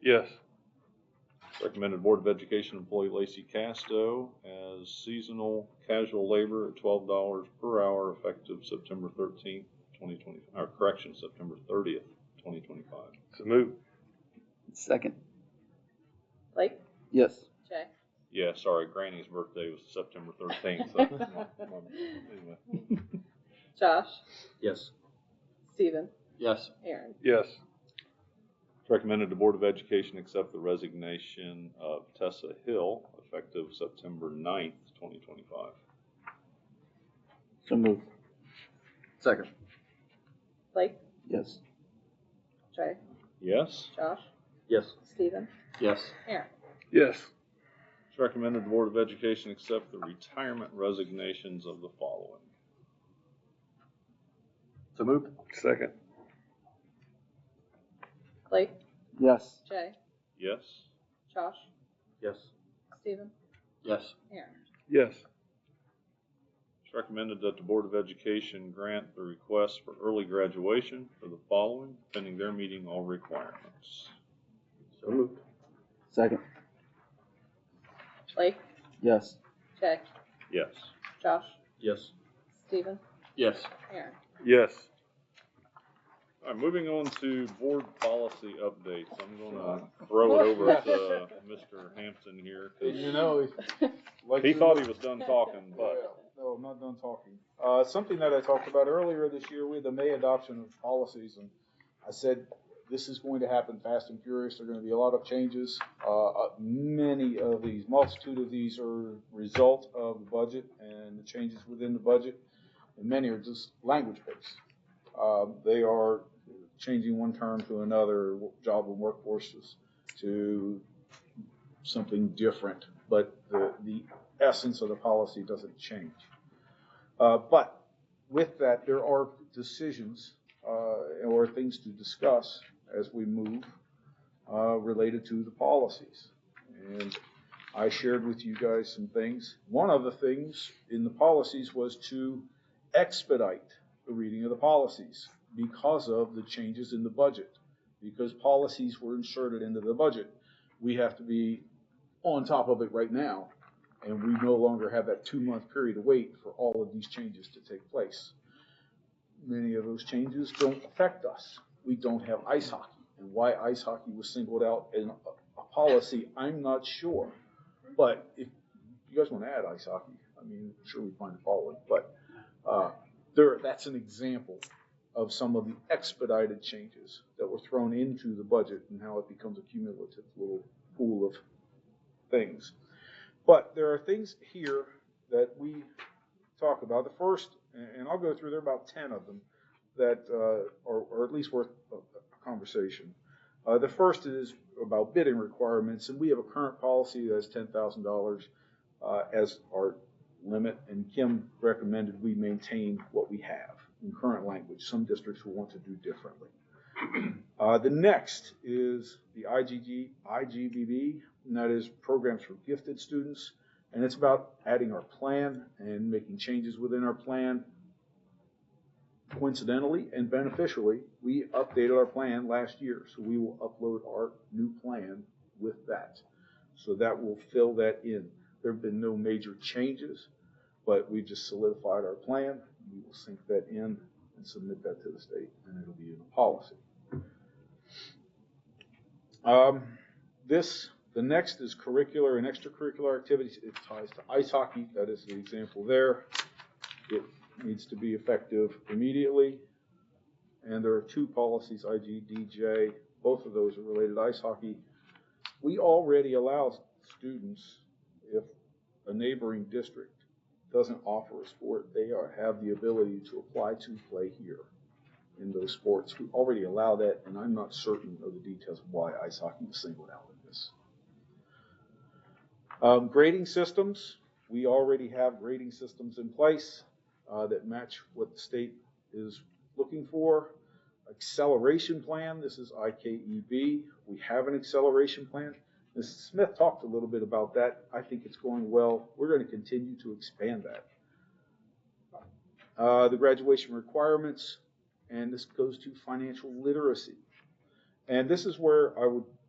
Yes. Recommended Board of Education employee Lacey Casto as seasonal casual labor at twelve dollars per hour effective September thirteenth, twenty twenty, or correction, September thirtieth, twenty twenty-five. So move. Second, Blake? yes. Jay? Yeah, sorry, Granny's birthday was September thirteenth, so. anyway. Josh? Yes. Steven? Yes. Aaron? Yes. Recommended the Board of Education accept the resignation of Tessa Hill effective September 9th, twenty twenty-five. So moved, Second. Blake? yes. Jay? Yes? Josh? Yes. Steven? Yes. Aaron? Yes. It's recommended the Board of Education accept the retirement resignations of the following. So moved. Second. Blake? Yes, Jay? Yes? Josh? Yes. Steven? Yes. Aaron? Yes. It's recommended that the Board of Education grant the request for early graduation for the following, pending their meeting all requirements. So moved. second, Blake? yes. Jay? Yes. Josh? Yes. Steven? Yes. Aaron? Yes. All right, moving on to board policy updates. I'm gonna throw it over to Mr. Hampton here. 'cause You know, it's like He thought he was done talking, Yeah, but no, I'm not done talking. Uh, something that I talked about earlier this year with the May adoption of policies, and I said this is going to happen fast and furious. There are going to be a lot of changes. Uh, uh, many of these, multitude of these, are result of the budget and the changes within the budget, and many are just language based. Uh, they are changing one term to another, job and workforces to something different, but the, the essence of the policy doesn't change. Uh, but with that, there are decisions uh, or things to discuss as we move uh, related to the policies. And I shared with you guys some things. One of the things in the policies was to expedite the reading of the policies because of the changes in the budget, because policies were inserted into the budget. We have to be on top of it right now and we no longer have that two-month period to wait for all of these changes to take place. Many of those changes don't affect us. We don't have ice hockey, and why ice hockey was singled out in a, a policy, I'm not sure. But if you guys want to add ice hockey, I mean, I'm sure we find it following, but uh, there, that's an example of some of the expedited changes that were thrown into the budget and how it becomes a cumulative little pool of things. But there are things here that we talk about. The first, and I'll go through, there are about 10 of them that uh, are, are at least worth a a conversation. Uh, the first is about bidding requirements, and we have a current policy that's $10,000 uh, as our limit, and Kim recommended we maintain what we have in current language. Some districts will want to do differently. Uh, the next is the IGG, IGBB, and that is Programs for Gifted Students. And it's about adding our plan and making changes within our plan. Coincidentally and beneficially, we updated our plan last year, so we will upload our new plan with that. So that will fill that in. There have been no major changes, but we just solidified our plan. We will sync that in and submit that to the state, and it'll be in the policy. Um, this, the next is curricular and extracurricular activities. It ties to ice hockey. That is the example there. It needs to be effective immediately. And there are two policies, IGDJ. Both of those are related to ice hockey. We already allow students, if a neighboring district doesn't offer a sport, they are, have the ability to apply to play here in those sports. We already allow that, and I'm not certain of the details of why ice hockey was singled out in this. Um, grading systems, we already have grading systems in place uh, that match what the state is looking for. Acceleration plan, this is IKEB. We have an acceleration plan. Ms. Smith talked a little bit about that. I think it's going well. We're going to continue to expand that. Uh, the graduation requirements, and this goes to financial literacy. And this is where I would